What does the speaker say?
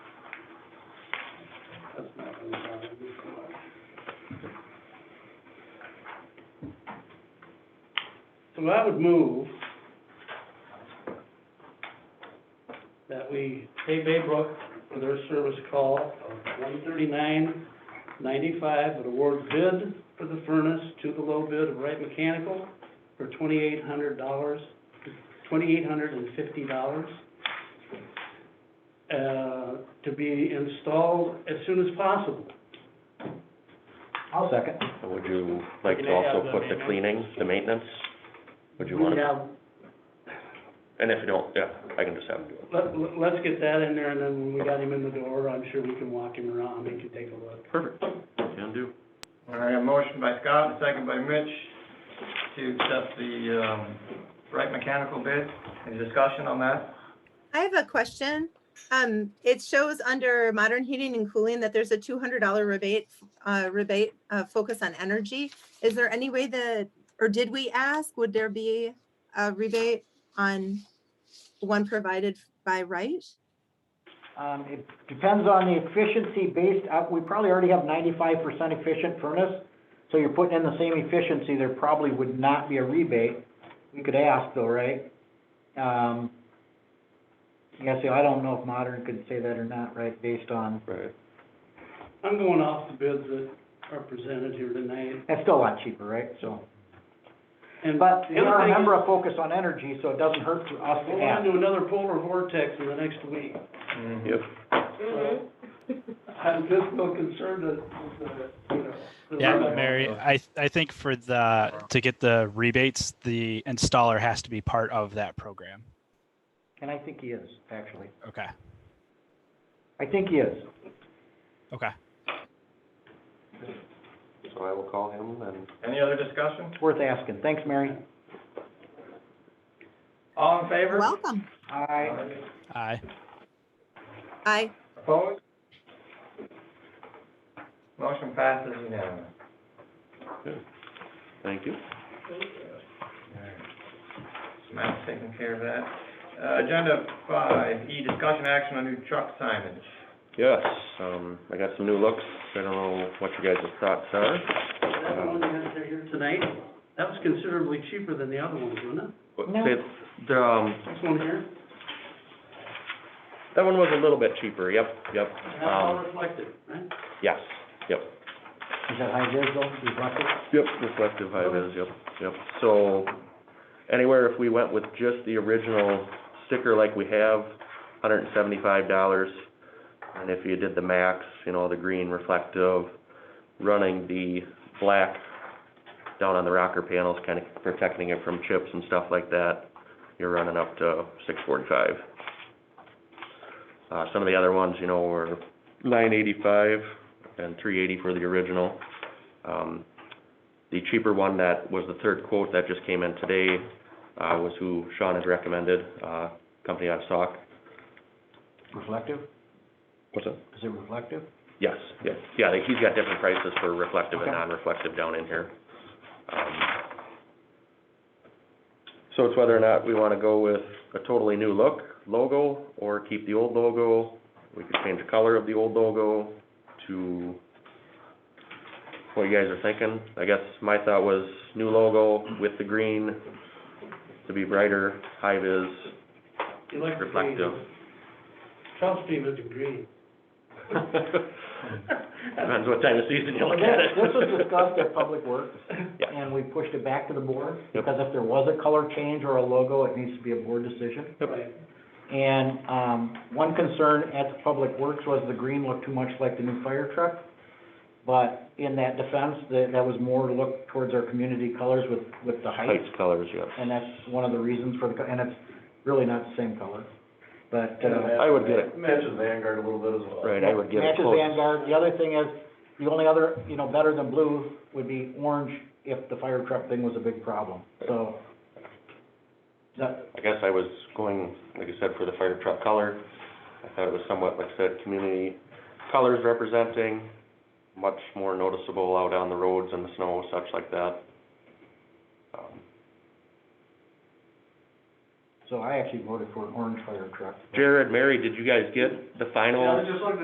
So I would move that we pay Baybrook for their service call of one thirty-nine ninety-five, but award bid for the furnace to the low bid of Wright Mechanical for twenty-eight hundred dollars, twenty-eight hundred and fifty dollars. Uh, to be installed as soon as possible. I'll second. Would you like to Can I have also the put the maintenance? cleaning, the maintenance? Would you We want to, have- and if you don't, yeah, I can just have him do it. Let, let- let's get that in there, and then when we got him in the door, I'm sure we can walk him around, and he can take a look. Perfect, can do. All right, a motion by Scott and a second by Mitch to accept the, um, Wright Mechanical bid. Any discussion on that? I have a question. Um, it shows under modern heating and cooling that there's a two hundred dollar rebate, uh, rebate, uh, focus on energy. Is there any way that, or did we ask, would there be a rebate on one provided by right? Um, it depends on the efficiency based, uh, we probably already have ninety-five percent efficient furnace, so you're putting in the same efficiency, there probably would not be a rebate. We could ask though, right? Um, yeah, so I don't know if modern could say that or not, right, based on, Right, I'm going off the bids that are presented here tonight, that's still a lot cheaper, right, so. and. But the you other gotta thing is, remember a focus on energy, so it doesn't hurt for us to We're going ask. into another polar vortex in the next week, yep, so. Mm-hmm. I'm just so concerned that, that, you know. that Yeah, we're- Mary, I, th- I think for the, to get the rebates, the installer has to be part of that program. And I think he is, actually. Okay, I think he is. okay. so I will call him and. Any other discussion? It's worth asking. Thanks, Mary. All in favor? Welcome. Aye. Aye. Aye. I, Opposed? Motion passes unanimous. Thank you. Matt's taking care of that. Uh, agenda five, E, discussion action on new truck signage. Yes, um, I got some new looks, I don't know what you guys' thoughts are. That one you had there here tonight, that was considerably cheaper than the other ones, wasn't But No. say, the, um, it? This one here, that one was a little bit cheaper, yep, yep, that's all um, reflected, right? yes, yep. Is that high vis though? Is that it? Yep, reflective high vis, yep, yep. So anywhere if we went with just the original sticker like we have, hundred and seventy-five dollars. And if you did the max, you know, the green reflective, running the black down on the rocker panels, kind of protecting it from chips and stuff like that, you're running up to six forty-five. Uh, some of the other ones, you know, were nine eighty-five and three eighty for the original. Um, the cheaper one that was the third quote that just came in today, uh, was who Sean had recommended, uh, company out of Sauk. Reflective? What's that? Is it reflective? Yes, yes, yeah, he's got different prices for reflective and Okay. non-reflective down in here. Um, So it's whether or not we wanna go with a totally new look, logo, or keep the old logo. We could change the color of the old logo to what you guys are thinking. I guess my thought was new logo with the green to be brighter, high vis, Electric green. reflective. Trust me, Mr. Green. Depends what time of season you look at it. This was discussed at Public Works, Yeah. and we pushed it back to the board, Yep. because if there was a color change or a logo, it needs to be a board decision. Right. And, um, one concern at the Public Works was the green looked too much like the new fire truck. But in that defense, that, that was more to look towards our community colors with, with the height. Heights colors, yes. And that's one of the reasons for the, co- and it's really not the same color, but, uh. I would get it. Matches Vanguard a little bit as well. Right, I would get it Matches close. Vanguard, the other thing is, the only other, you know, better than blue would be orange if the fire truck thing was a big problem, so. That, I guess I was going, like I said, for the fire truck color. I thought it was somewhat, like I said, community colors representing, much more noticeable out on the roads and the snow, such like that. Um, so I actually voted for an orange fire truck. Jared, Mary, did you guys get the final? Yeah, I was just looking